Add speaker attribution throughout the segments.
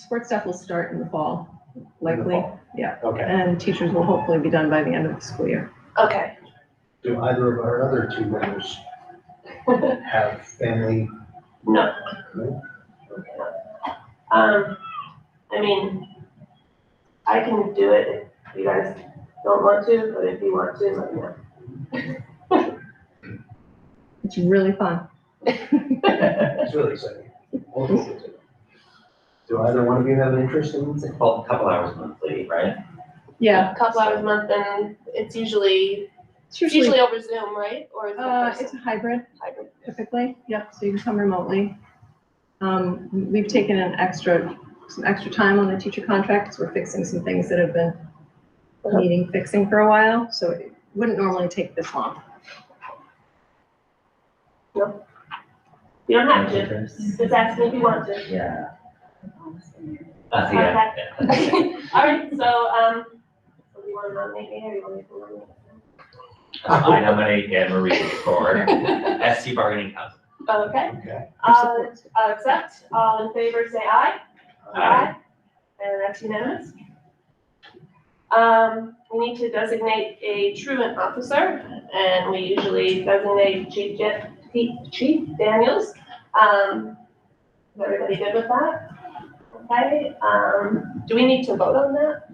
Speaker 1: Sports stuff will start in the fall,
Speaker 2: in the
Speaker 1: likely,
Speaker 2: fall?
Speaker 1: yeah.
Speaker 2: Okay.
Speaker 1: and teachers will hopefully be done by the end of the school year.
Speaker 3: Okay.
Speaker 2: Do either of our other two members have family?
Speaker 3: No.
Speaker 2: No?
Speaker 3: Um, I mean, I can do it if you guys don't want to, but if you want to, let me know.
Speaker 1: It's really fun.
Speaker 2: It's really exciting. Both of us. Do either one of you have an interest in
Speaker 4: It's like a couple hours monthly, right?
Speaker 1: Yeah,
Speaker 3: A Couple hours a month and it's usually,
Speaker 1: it's
Speaker 3: it's
Speaker 1: usually,
Speaker 3: usually over Zoom, right? Or is it
Speaker 1: uh,
Speaker 3: person?
Speaker 1: it's a hybrid
Speaker 3: hybrid?
Speaker 1: typically, yep, so you can come remotely. Um, we've taken an extra, some extra time on the teacher contracts, we're fixing some things that have been
Speaker 2: Uh-huh.
Speaker 1: needing fixing for a while, so it wouldn't normally take this long.
Speaker 3: You don't have to,
Speaker 4: Interest?
Speaker 3: just ask me if you want to.
Speaker 4: Yeah. Uh, yeah.
Speaker 3: Okay. All right, so, um, do you want to nominate me or you want me to nominate? you?
Speaker 4: I nominate Anne Marie for SC bargaining council.
Speaker 3: Okay,
Speaker 2: Okay.
Speaker 3: uh, I'll accept, all in favor, say aye. Aye. And that's unanimous. Um, we need to designate a truant officer, and we usually designate Chief Jeff, Chief Daniels. Um, is everybody good with that? Okay, um, do we need to vote on that?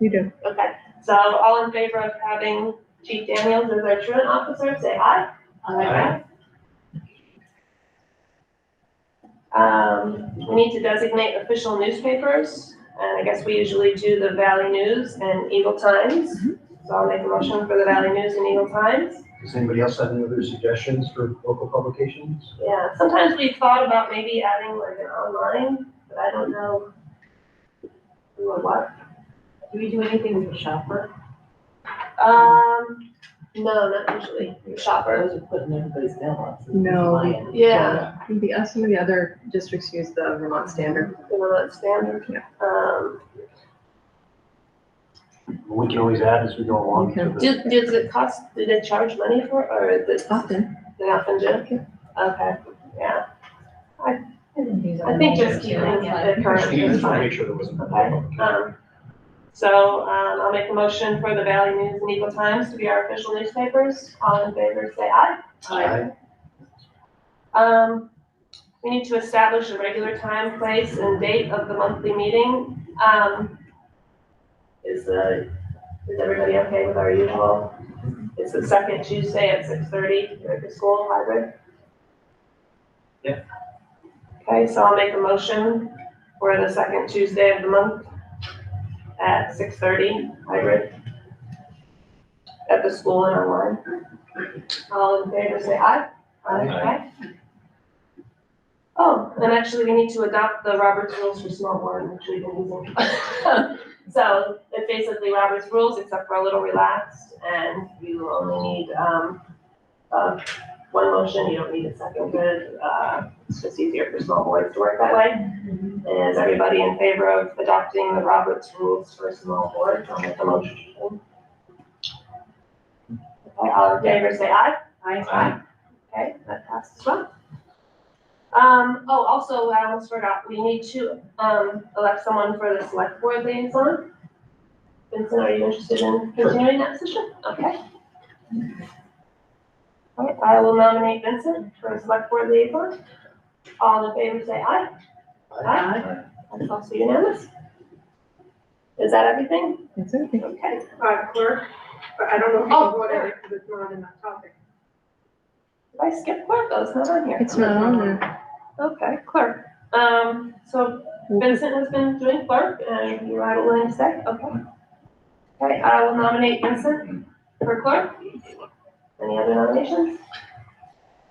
Speaker 1: You do.
Speaker 3: Okay, so all in favor of having Chief Daniels as our truant officer, say aye.
Speaker 2: Aye.
Speaker 3: Um, we need to designate official newspapers, and I guess we usually do the Valley News and Eagle Times. So I'll make a motion for the Valley News and Eagle Times.
Speaker 2: Does anybody else have any other suggestions for local publications?
Speaker 3: Yeah, sometimes we thought about maybe adding like an online, but I don't know. who or what?
Speaker 5: Do we do anything with the shopper?
Speaker 3: Um, no, not usually, shoppers.
Speaker 5: Those are put in everybody's mailboxes.
Speaker 1: No.
Speaker 5: My end.
Speaker 3: Yeah.
Speaker 1: The, uh, some of the other districts use the Vermont Standard.
Speaker 3: the Vermont Standard.
Speaker 1: Yeah.
Speaker 3: Um,
Speaker 2: We can always add as we go along. to
Speaker 1: Okay.
Speaker 2: the-
Speaker 3: do, does it cost, do they charge money for, it, or is it
Speaker 1: Often,
Speaker 3: they often do? Okay, yeah, I think just keeping it the current
Speaker 2: Steve,
Speaker 3: is
Speaker 2: just want to
Speaker 3: fine.
Speaker 2: make sure there wasn't.
Speaker 3: Um, so, um, I'll make a motion for the Valley News and Eagle Times to be our official newspapers, all in favor, say aye.
Speaker 2: Aye.
Speaker 3: Um, we need to establish a regular time, place, and date of the monthly meeting, um, is the, is everybody okay with our usual? It's the second Tuesday at six thirty, here at the school library.
Speaker 4: Yep.
Speaker 3: Okay, so I'll make a motion for the second Tuesday of the month at six thirty, hybrid. At the school and online. All in favor, say aye.
Speaker 2: Aye.
Speaker 3: Aye. Oh, and actually, we need to adopt the Robert's rules for small board, which we've been using. So it's basically Robert's rules, except for a little relaxed, and you only need, um, uh, one motion, you don't need a second, but, uh, it's just easier for small boards to work that way. Is everybody in favor of adopting the Roberts rules for small boards? I'll make a motion. Okay, all in favor, say aye. Aye.
Speaker 4: Aye.
Speaker 3: Okay, that passes as well. Um, oh, also, I almost forgot, we need to, um, elect someone for the select board liaison. Vincent, are you interested in
Speaker 2: Sure.
Speaker 3: continuing that position? Okay. All right, I will nominate Vincent for select board liaison. All in favor, say aye. Aye. That's also unanimous. Is that everything?
Speaker 1: it's okay.
Speaker 3: Okay.
Speaker 6: uh, clerk, but I don't know if
Speaker 3: Oh,
Speaker 6: you voted it because it's not in that topic.
Speaker 3: Did I skip clerk? Oh, it's not on here.
Speaker 1: It's not on there.
Speaker 3: Okay, clerk. Um, so Vincent has been doing clerk and you are willing to say, okay. Okay, I will nominate Vincent for clerk. Any other nominations?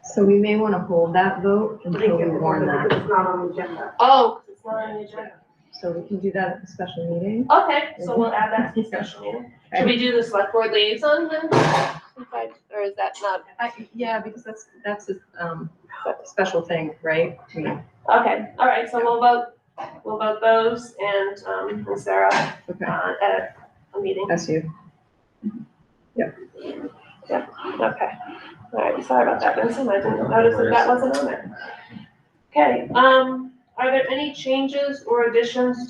Speaker 1: So we may want to hold that vote
Speaker 6: I
Speaker 1: until
Speaker 6: think
Speaker 1: we
Speaker 6: it's
Speaker 1: warn that.
Speaker 6: because it's not on the agenda.
Speaker 3: Oh, 'cause it's not on the agenda.
Speaker 1: So we can do that at the special meeting.
Speaker 3: Okay, so we'll add that to the special meeting. Should we do the select board liaison then? Okay, Or is that not
Speaker 1: I, yeah, because that's, that's a, um, a special thing, right? We-
Speaker 3: Okay, all right, so we'll vote, we'll vote those and, um, and Sarah,
Speaker 1: Okay,
Speaker 3: uh, at a meeting.
Speaker 1: that's you.
Speaker 3: Okay, all right, sorry about that, Vincent, I didn't notice that that wasn't on there. Okay, um, are there any changes or additions